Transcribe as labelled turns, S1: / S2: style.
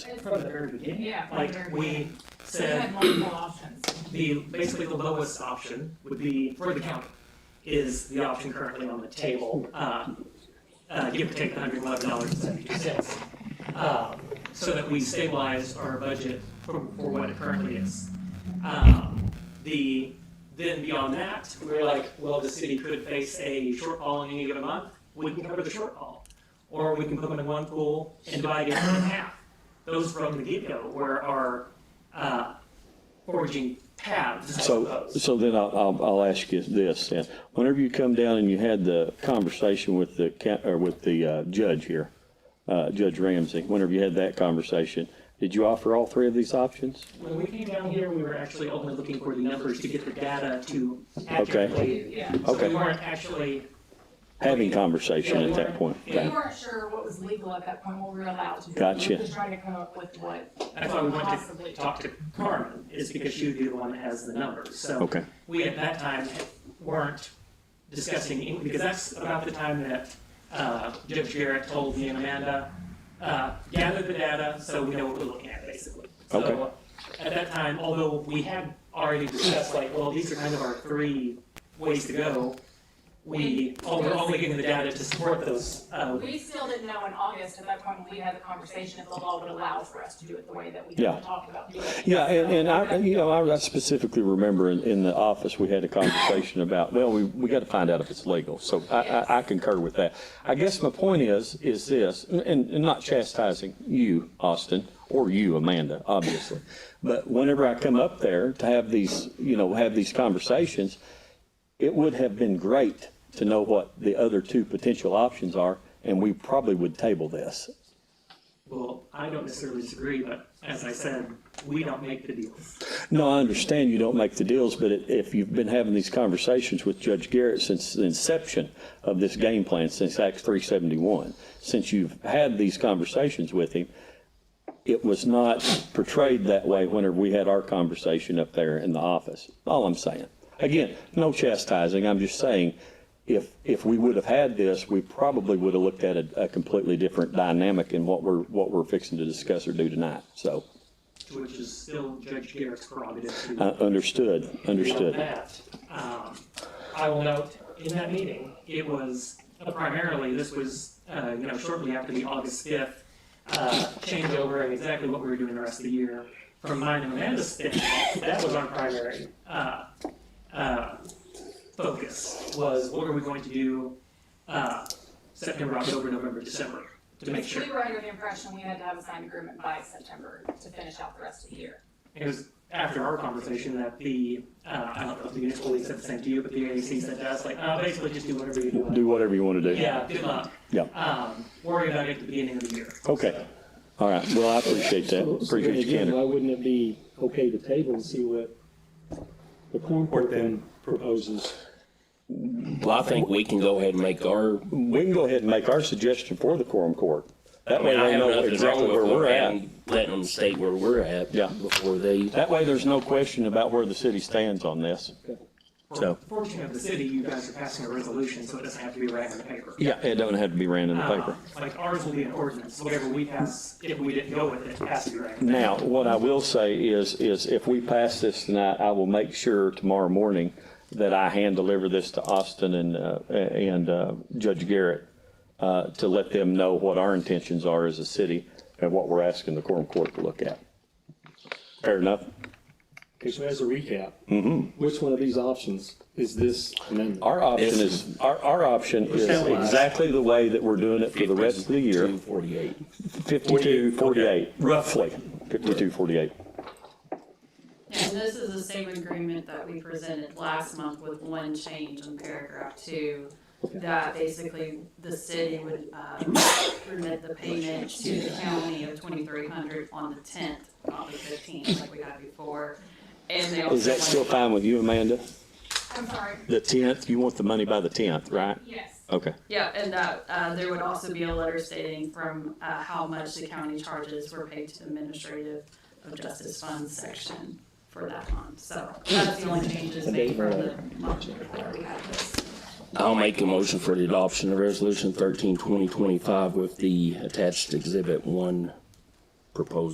S1: from the very beginning.
S2: Yeah, from the
S1: Like
S2: very
S1: we
S2: beginning. So you
S1: said,
S2: had multiple options.
S1: the, basically the lowest option would be for the county is the option currently on the table, uh, uh, give or take the hundred eleven dollars and seventy-two cents. Um, so that we stabilize our budget for, for what it currently is. Um, the, then beyond that, we were like, well, the city could face a shortfall in any given month, we can cover the shortfall. Or we can put them in one pool and divide it in half. Those from the get-go were our, uh, foraging paths, I
S3: So,
S1: suppose.
S3: so then I'll, I'll, I'll ask you this then. Whenever you come down and you had the conversation with the, ca- or with the uh, judge here, uh, Judge Ramsey, whenever you had that conversation, did you offer all three of these options?
S1: When we came down here, we were actually only looking for the numbers to get the data to accurately.
S2: Yeah.
S1: So
S3: Okay.
S1: we weren't actually,
S3: Having conversation at that point?
S2: We
S3: Okay.
S2: weren't sure what was legal at that point, what we were allowed to do. We
S3: Gotcha.
S2: were just trying to come up with what.
S1: that's why we wanted
S2: Possibly.
S1: to talk to Carmen, is because she would be the one that has the numbers, so.
S3: Okay.
S1: We at that time weren't discussing, any- because that's about the time that, uh, Judge Garrett told me and Amanda, uh, gather the data so we know what we're looking at, basically. So
S3: Okay.
S1: At that time, although we had already discussed like, well, these are kind of our three ways to go, we, oh, we're only getting the data to support those, uh,
S2: We still didn't know in August at that point when we had the conversation if the law would allow for us to do it the way that we
S3: Yeah.
S2: had talked about. doing it.
S3: Yeah, and, and I, you know, I specifically remember in, in the office, we had a conversation about, well, we, we gotta find out if it's legal, so I, I, I concur with that. I guess my point is, is this, and, and not chastising you, Austin, or you, Amanda, obviously. But whenever I come up there to have these, you know, have these conversations, it would have been great to know what the other two potential options are, and we probably would table this.
S1: well, I don't necessarily disagree, but as I said, we don't make the deals.
S3: No, I understand you don't make the deals, but it- if you've been having these conversations with Judge Garrett since the inception of this game plan, since Act 371, since you've had these conversations with him, it was not portrayed that way whenever we had our conversation up there in the office. All I'm saying. Again, no chastising, I'm just saying, if, if we would have had this, we probably would have looked at a a completely different dynamic in what we're, what we're fixing to discuss or do tonight, so.
S1: which is still Judge Garrett's prerogative
S3: I
S1: to.
S3: uh, understood,
S1: handle
S3: understood.
S1: that. Um, I will note, in that meeting, it was uh, primarily, this was, uh, you know, shortly after the August fifth, uh, changeover and exactly what we were doing the rest of the year. From mine and Amanda's standpoint, that was our primary, uh, uh, focus, was what are we going to do, uh, September, October, November, December, to make sure.
S2: We were under the impression we had to have a signed agreement by September to finish out the rest of the year.
S1: It was after our conversation that the, uh, I don't know if the municipal league said the same to you, but the AAC said to us, like, uh, basically just do whatever you do.
S3: Do whatever you want to do.
S1: Yeah, good luck.
S3: Yeah.
S1: Um, worry about it at the beginning of the year.
S3: Okay. All right. Well, I appreciate that.
S4: So- so then
S3: Appreciate your
S4: again, Why
S3: candor.
S4: wouldn't it be okay to table and see what the corn court then proposes?
S5: Well, I think we can go ahead and make our,
S3: We can go ahead and make our suggestion for the quorum court.
S5: I
S3: That way
S5: mean, I
S3: they
S5: have
S3: know
S5: nothing
S3: exactly
S5: wrong
S3: where
S5: with
S3: we're at.
S5: letting, letting them state where we're at.
S3: Yeah.
S5: Before they,
S3: That way there's no question about where the city stands on this. So-
S1: Fortunately of the city, you guys are passing a resolution, so it doesn't have to be right on the paper.
S3: Yeah, it doesn't have to be ran in
S5: Oh.
S3: the paper.
S1: Uh, Like ours will be an ordinance, whatever we pass, if we didn't go with it, it has to be right. on the
S3: Now, what I will say is, is if we pass this tonight, I will make sure tomorrow morning that I hand deliver this to Austin and, uh, and uh, Judge Garrett uh, to let them know what our intentions are as a city and what we're asking the quorum court to look at. Fair enough?
S4: Okay, so as a recap, which one of these options is this amendment?
S3: Our option is, our, our option is exactly the way that we're doing it for the rest of the year,
S5: 248.
S3: fifty-two, forty-eight, roughly, fifty-two, forty-eight.
S6: And this is the same agreement that we presented last month with one change in paragraph two, that basically the city would, um, remit the payment to the county of twenty-three hundred on the tenth, not the fifteenth, like we had before. And they also.
S3: Is that still
S6: want-
S3: fine with you, Amanda?
S2: I'm sorry,
S3: The tenth, you want the money by the tenth, right?
S2: yes.
S3: Okay,
S6: Yeah, and that, uh, there would also be a letter stating from, uh, how much the county charges were paid to the administrative of justice fund section for that month, so that's the only changes made from the month before we had this.
S5: I'll make a motion for the adoption of resolution 13 2025 with the attached exhibit one proposal.